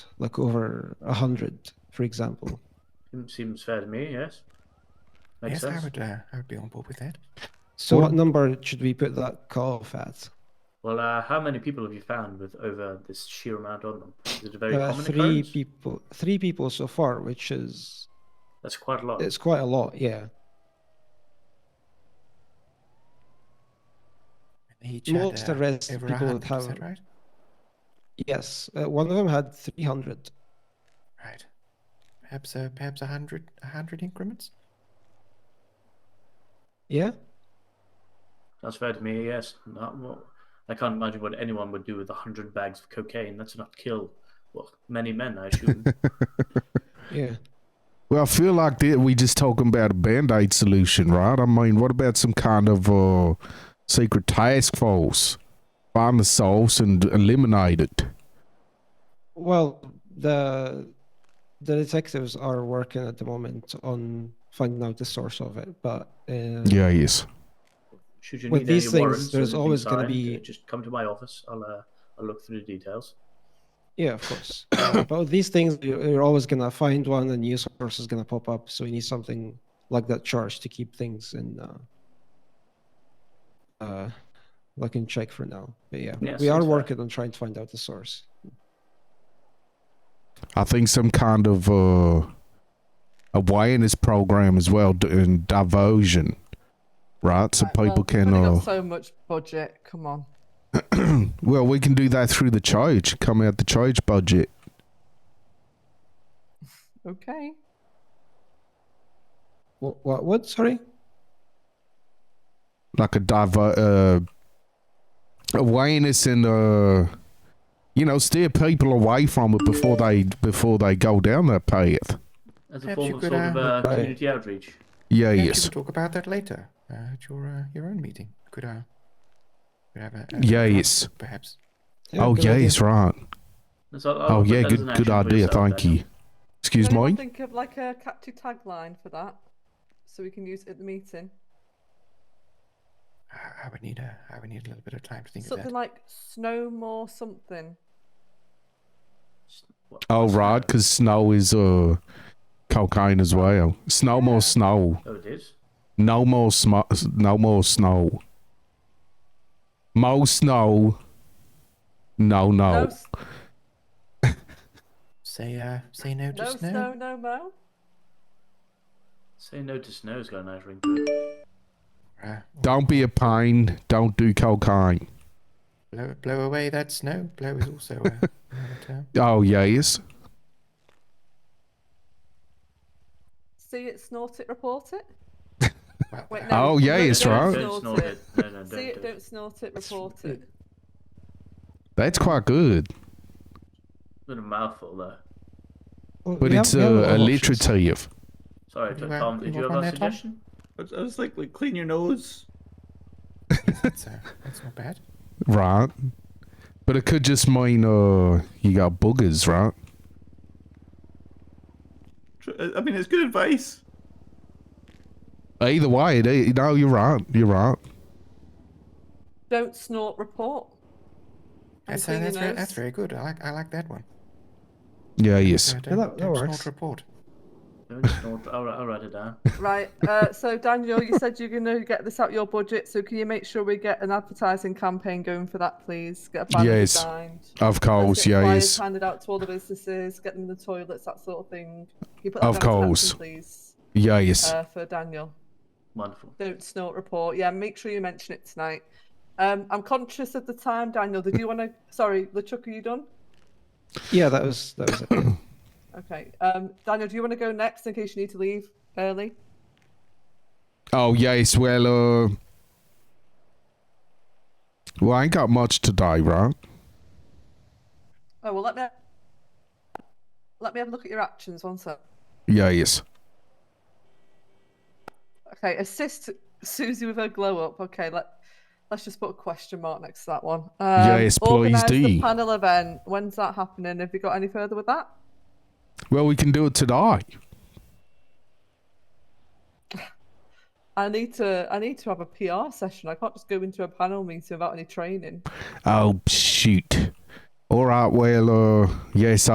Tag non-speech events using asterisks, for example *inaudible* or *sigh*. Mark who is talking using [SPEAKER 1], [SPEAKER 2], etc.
[SPEAKER 1] like over a hundred, for example.
[SPEAKER 2] Seems- Seems fair to me, yes. Makes
[SPEAKER 3] yes,
[SPEAKER 2] sense.
[SPEAKER 3] I would. Uh, I would be on board with that.
[SPEAKER 1] So what number should we put that cutoff at?
[SPEAKER 2] Well, uh, how many people have you found with over this sheer amount on them? Is it a very
[SPEAKER 1] Uh,
[SPEAKER 2] common
[SPEAKER 1] three
[SPEAKER 2] occurrence?
[SPEAKER 1] people, three people so far, which is
[SPEAKER 2] That's quite a lot.
[SPEAKER 1] it's quite a lot. Yeah,
[SPEAKER 3] And each had,
[SPEAKER 1] Most
[SPEAKER 3] uh,
[SPEAKER 1] arrests
[SPEAKER 3] over
[SPEAKER 1] people would
[SPEAKER 3] 100%,
[SPEAKER 1] have-
[SPEAKER 3] right.
[SPEAKER 1] yes. Uh, one of them had three hundred.
[SPEAKER 3] Right. Perhaps uh, perhaps a hundred a hundred increments.
[SPEAKER 1] Yeah,
[SPEAKER 2] That's fair to me, yes. Not, well, I can't imagine what anyone would do with 100 bags of cocaine. That's enough to kill well, many men,
[SPEAKER 1] *laughs*
[SPEAKER 2] I assume.
[SPEAKER 1] yeah.
[SPEAKER 4] Well, I feel like that we just talking about a band aid solution, right? I mean, what about some kind of uh, secret task force? Find the source and eliminate it.
[SPEAKER 1] Well, the the detectives are working at the moment on finding out the source of it, but uh,
[SPEAKER 4] Yes.
[SPEAKER 2] Should you
[SPEAKER 1] With
[SPEAKER 2] need
[SPEAKER 1] these
[SPEAKER 2] any
[SPEAKER 1] things,
[SPEAKER 2] warrants or
[SPEAKER 1] there's
[SPEAKER 2] anything
[SPEAKER 1] always gonna
[SPEAKER 2] signed,
[SPEAKER 1] be-
[SPEAKER 2] uh, Just come to my office. I'll, uh, I'll look through the details.
[SPEAKER 1] yeah, of course. *coughs* Uh, but with these things, you- you're always gonna find one, and new source is gonna pop up. So you need something like that charge to keep things in, uh, uh, like in check for now. But yeah,
[SPEAKER 2] Yeah,
[SPEAKER 1] we are
[SPEAKER 2] sounds fair.
[SPEAKER 1] working on trying to find out the source.
[SPEAKER 4] I think some kind of uh, awareness program as well, d- and diversion, right? So
[SPEAKER 5] Right,
[SPEAKER 4] people
[SPEAKER 5] well,
[SPEAKER 4] can.
[SPEAKER 5] We've only
[SPEAKER 4] Uh,
[SPEAKER 5] got so much budget. Come on.
[SPEAKER 4] well, we can do that through the church. Come out the church budget.
[SPEAKER 5] Okay.
[SPEAKER 1] What? What? what? Sorry.
[SPEAKER 4] like a diver uh, awareness and uh, you know steer people away from it before they before they go down that path.
[SPEAKER 2] As a
[SPEAKER 3] Perhaps
[SPEAKER 2] form
[SPEAKER 3] you
[SPEAKER 2] of
[SPEAKER 3] could,
[SPEAKER 2] sort of
[SPEAKER 3] uh,
[SPEAKER 2] uh,
[SPEAKER 1] Right.
[SPEAKER 2] community outreach.
[SPEAKER 4] Yeah,
[SPEAKER 3] Perhaps you
[SPEAKER 4] yes,
[SPEAKER 3] could talk about that later uh, at your uh, your own meeting. Could I? Could have a, a
[SPEAKER 4] Yeah,
[SPEAKER 3] drunk,
[SPEAKER 4] yes.
[SPEAKER 3] Perhaps.
[SPEAKER 1] Yeah,
[SPEAKER 4] oh
[SPEAKER 1] good
[SPEAKER 4] yeah,
[SPEAKER 1] idea.
[SPEAKER 4] it's right.
[SPEAKER 2] So I'll- I'll
[SPEAKER 4] oh
[SPEAKER 2] put
[SPEAKER 4] yeah,
[SPEAKER 2] that as
[SPEAKER 4] good
[SPEAKER 2] an
[SPEAKER 4] good
[SPEAKER 2] action for
[SPEAKER 4] idea.
[SPEAKER 2] yourself,
[SPEAKER 4] Thank
[SPEAKER 2] Daniel.
[SPEAKER 4] you. Excuse
[SPEAKER 5] Anyone
[SPEAKER 4] me.
[SPEAKER 5] Think of like a catchy tagline for that, so we can use it at the meeting.
[SPEAKER 3] I, I would need a I would need a little bit of time to think
[SPEAKER 5] something
[SPEAKER 3] of that.
[SPEAKER 5] like snow more something.
[SPEAKER 2] What-
[SPEAKER 4] Oh
[SPEAKER 2] what's
[SPEAKER 4] right,
[SPEAKER 2] that?
[SPEAKER 4] because snow is uh cocaine as well. Snow more snow.
[SPEAKER 2] Oh, it is.
[SPEAKER 4] No more sm- No more snow. More snow. No,
[SPEAKER 5] No,
[SPEAKER 4] no.
[SPEAKER 5] s-
[SPEAKER 3] say uh, say no to
[SPEAKER 5] no
[SPEAKER 3] snow.
[SPEAKER 5] snow, no mo.
[SPEAKER 2] Say no to snow has got a nice ring to it.
[SPEAKER 3] Uh,
[SPEAKER 4] Don't be a pain. Don't do cocaine.
[SPEAKER 3] blow, blow away that snow. Blow is also uh, another term.
[SPEAKER 4] Oh yes.
[SPEAKER 5] See it, snort it, report it.
[SPEAKER 3] Well,
[SPEAKER 5] Wait,
[SPEAKER 3] uh,
[SPEAKER 5] no.
[SPEAKER 4] Oh, yeah,
[SPEAKER 5] no,
[SPEAKER 4] it's
[SPEAKER 5] don't
[SPEAKER 4] right.
[SPEAKER 2] Don't
[SPEAKER 5] Snort
[SPEAKER 2] snort
[SPEAKER 5] it.
[SPEAKER 2] it. No,
[SPEAKER 3] *laughs*
[SPEAKER 2] no,
[SPEAKER 5] *laughs* See it,
[SPEAKER 2] don't. do it.
[SPEAKER 5] don't snort it, report it.
[SPEAKER 4] That's quite good,
[SPEAKER 2] Bit of a mouthful though.
[SPEAKER 1] Well,
[SPEAKER 4] but
[SPEAKER 1] we
[SPEAKER 4] it's
[SPEAKER 1] have- we have
[SPEAKER 4] uh,
[SPEAKER 1] lot of options.
[SPEAKER 4] alliterative.
[SPEAKER 2] Sorry,
[SPEAKER 3] You
[SPEAKER 2] Tom.
[SPEAKER 3] were- you
[SPEAKER 2] did you
[SPEAKER 3] were
[SPEAKER 2] have
[SPEAKER 3] on
[SPEAKER 2] a
[SPEAKER 3] there, Tom?
[SPEAKER 2] suggestion?
[SPEAKER 6] I was- I was like, like clean your nose.
[SPEAKER 3] that's, uh, that's not bad.
[SPEAKER 4] right? But it could just mean uh, you got boogers, right?
[SPEAKER 6] Tr- I I mean, it's good advice.
[SPEAKER 4] Either way, it, it, no, you're right. You're right.
[SPEAKER 5] Don't snort, report. And
[SPEAKER 3] That's, uh,
[SPEAKER 5] clean your
[SPEAKER 3] that's, very,
[SPEAKER 5] nose.
[SPEAKER 3] that's very good. I like I like that one.
[SPEAKER 4] Yeah, yes.
[SPEAKER 3] Uh, don't
[SPEAKER 1] Yeah, that- that
[SPEAKER 3] don't snort,
[SPEAKER 1] works.
[SPEAKER 3] report.
[SPEAKER 2] Don't snort. I'll, I'll write it down.
[SPEAKER 5] Right. Uh, so Daniel, you said you're going to get this out your budget. So can you make sure we get an advertising campaign going for that, please? Get a banner
[SPEAKER 4] Yes.
[SPEAKER 5] designed.
[SPEAKER 4] Of course,
[SPEAKER 5] Let's get
[SPEAKER 4] yeah,
[SPEAKER 5] flyers
[SPEAKER 4] yes.
[SPEAKER 5] handed out to all the businesses, get them in the toilets, that sort of thing. Can you put
[SPEAKER 4] Of
[SPEAKER 5] down as an action,
[SPEAKER 4] course.
[SPEAKER 5] please,
[SPEAKER 4] Yeah, yes.
[SPEAKER 5] uh, for Daniel.
[SPEAKER 2] Wonderful.
[SPEAKER 5] Don't snort report. Yeah, make sure you mention it tonight. Um, I'm conscious of the time, Daniel. Did you want to? Sorry, LeChuck, are you done?
[SPEAKER 1] Yeah, that was that was it. yeah.
[SPEAKER 5] Okay. Um, Daniel, do you want to go next in case you need to leave early?
[SPEAKER 4] oh, yes. Well, uh, well, I ain't got much today, right?
[SPEAKER 5] Oh well, let me let me have a look at your actions. One sec.
[SPEAKER 4] Yeah, yes.
[SPEAKER 5] Okay, assist Susie with her glow up. Okay, let let's just put a question mark next to that one. Um,
[SPEAKER 4] Yes, please
[SPEAKER 5] organise
[SPEAKER 4] do.
[SPEAKER 5] the panel event. When's that happening? Have you got any further with that?
[SPEAKER 4] Well, we can do it today.
[SPEAKER 5] I need to I need to have a PR session. I can't just go into a panel meeting without any training.
[SPEAKER 4] Oh shoot! All right. Well, uh, yes,